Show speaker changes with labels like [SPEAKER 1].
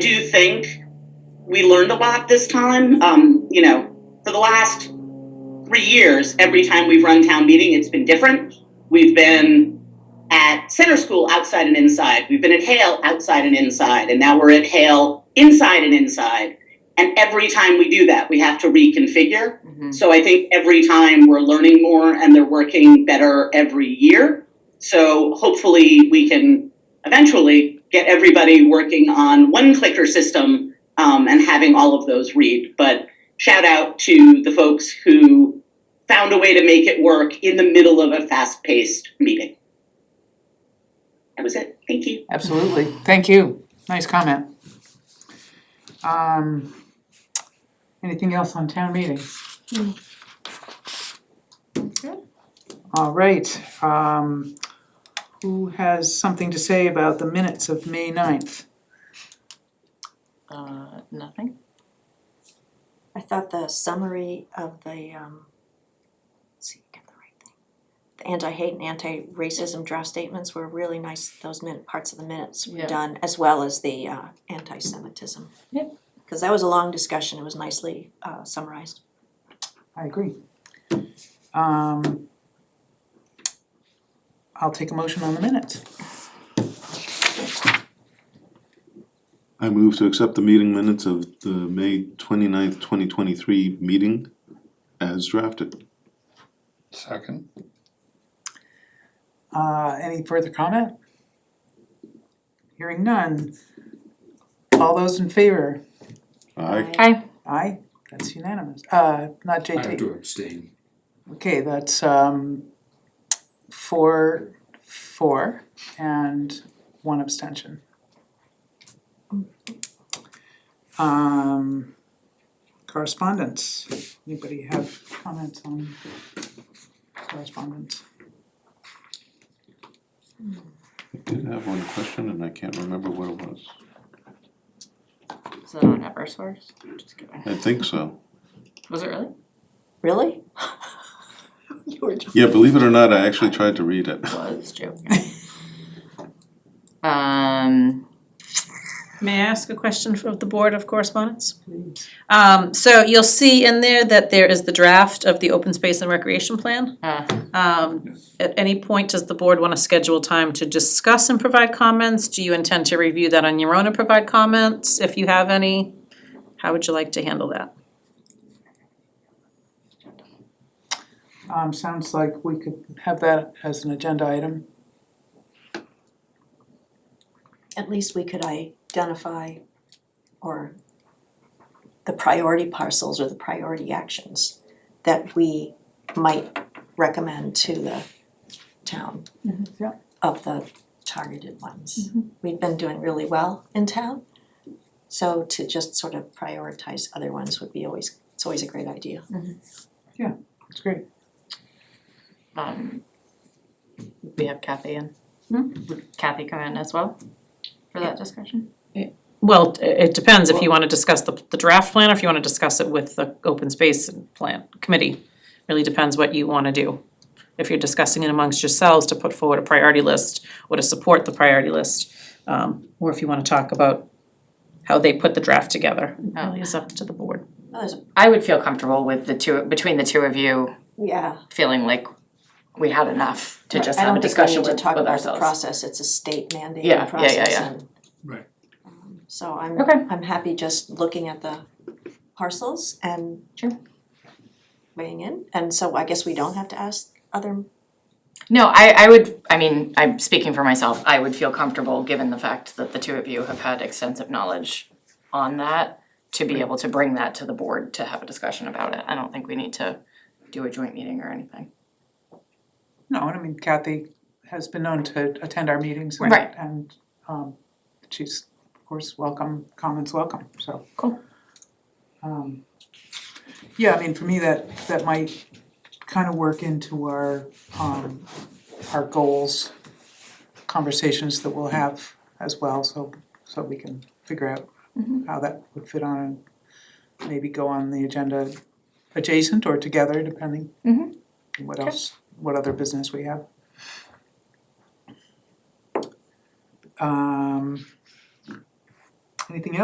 [SPEAKER 1] do think we learned a lot this time. Um, you know, for the last three years, every time we've run town meeting, it's been different. We've been at center school outside and inside. We've been at Hale outside and inside, and now we're at Hale inside and inside. And every time we do that, we have to reconfigure.
[SPEAKER 2] Mhm.
[SPEAKER 1] So I think every time we're learning more and they're working better every year. So hopefully we can eventually get everybody working on one clicker system um, and having all of those read. But shout out to the folks who found a way to make it work in the middle of a fast paced meeting. That was it. Thank you.
[SPEAKER 2] Absolutely, thank you, nice comment. Um, anything else on town meeting? All right, um, who has something to say about the minutes of May 9th?
[SPEAKER 3] Uh, nothing.
[SPEAKER 4] I thought the summary of the, um, let's see, get the right thing. The anti-hate and anti-racism draft statements were really nice, those minute, parts of the minutes were
[SPEAKER 3] Yeah.
[SPEAKER 4] done, as well as the, uh, anti-Semitism.
[SPEAKER 3] Yep.
[SPEAKER 4] Cause that was a long discussion, it was nicely, uh, summarized.
[SPEAKER 2] I agree. Um, I'll take a motion on the minutes.
[SPEAKER 5] I move to accept the meeting minutes of the May twenty-ninth, twenty twenty-three meeting as drafted.
[SPEAKER 6] Second.
[SPEAKER 2] Uh, any further comment? Hearing none. All those in favor?
[SPEAKER 5] Aye.
[SPEAKER 2] Aye, that's unanimous, uh, not
[SPEAKER 6] I have
[SPEAKER 2] JT,
[SPEAKER 6] to abstain.
[SPEAKER 2] okay, that's um four, four and one abstention. Um correspondence, anybody have comments on correspondence?
[SPEAKER 5] I did have one question and I can't remember what it was.
[SPEAKER 3] Is that on Eversource? Just kidding.
[SPEAKER 5] I think so.
[SPEAKER 3] Was it really?
[SPEAKER 4] Really? You were joking.
[SPEAKER 5] Yeah, believe it or not, I actually tried to read it.
[SPEAKER 3] Was joking. um,
[SPEAKER 7] May I ask a question of the Board of Correspondence?
[SPEAKER 2] Please.
[SPEAKER 7] Um, so you'll see in there that there is the draft of the open space and recreation plan.
[SPEAKER 3] uh,
[SPEAKER 7] Um, at any point, does the board wanna schedule time to discuss and provide comments? Do you intend to review that on your own and provide comments, if you have any? How would you like to handle that?
[SPEAKER 2] Um sounds like we could have that as an agenda item,
[SPEAKER 4] At least we could identify or the priority parcels or the priority actions that we might recommend to the town
[SPEAKER 2] yeah.
[SPEAKER 4] of the targeted ones. We've been doing really well in town, so to just sort of prioritize other ones would be always, it's always a great idea.
[SPEAKER 2] that's great.
[SPEAKER 3] um, we have Kathy in.
[SPEAKER 7] Hmm?
[SPEAKER 3] Would Kathy come in as well for that discussion?
[SPEAKER 7] Well, i- it depends if you wanna discuss the, the draft plan, or if you wanna discuss it with the open space and plan committee. Really depends what you wanna do. If you're discussing it amongst yourselves to put forward a priority list, or to support the priority list, um, or if you wanna talk about how they put the draft together, it really is up to the board.
[SPEAKER 4] Well, there's-
[SPEAKER 3] I would feel comfortable with the two between the two of you
[SPEAKER 4] Yeah,
[SPEAKER 3] feeling like we had enough to just
[SPEAKER 4] I
[SPEAKER 3] have a
[SPEAKER 4] don't think we
[SPEAKER 3] discussion
[SPEAKER 4] need to
[SPEAKER 3] with,
[SPEAKER 4] talk
[SPEAKER 3] with
[SPEAKER 4] about the
[SPEAKER 3] ourselves.
[SPEAKER 4] process, it's a state mandated
[SPEAKER 3] Yeah, yeah, yeah,
[SPEAKER 4] process
[SPEAKER 3] yeah.
[SPEAKER 4] and um,
[SPEAKER 6] Right.
[SPEAKER 4] So I'm,
[SPEAKER 3] Okay.
[SPEAKER 4] I'm happy just looking at the parcels and
[SPEAKER 3] Sure.
[SPEAKER 4] weighing in, and so I guess we don't have to ask other,
[SPEAKER 3] No, I, I would, I mean, I'm speaking for myself, I would feel comfortable, given the fact that the two of you have had extensive knowledge on that, to be able to bring that to the board to have a discussion about it. I don't think we need to do a joint meeting or anything.
[SPEAKER 2] No, and I mean Kathy has been known to attend our meetings and
[SPEAKER 3] Right.
[SPEAKER 2] and um she's of course welcome, comments welcome, so.
[SPEAKER 3] Cool.
[SPEAKER 2] Um yeah, I mean, for me, that that might kind of work into our um our goals conversations that we'll have as well, so so we can figure out
[SPEAKER 3] Mm-hmm.
[SPEAKER 2] how that would fit on and maybe go on the agenda adjacent or together, depending
[SPEAKER 3] Mhm.
[SPEAKER 2] what else, what other business we have. Um anything else?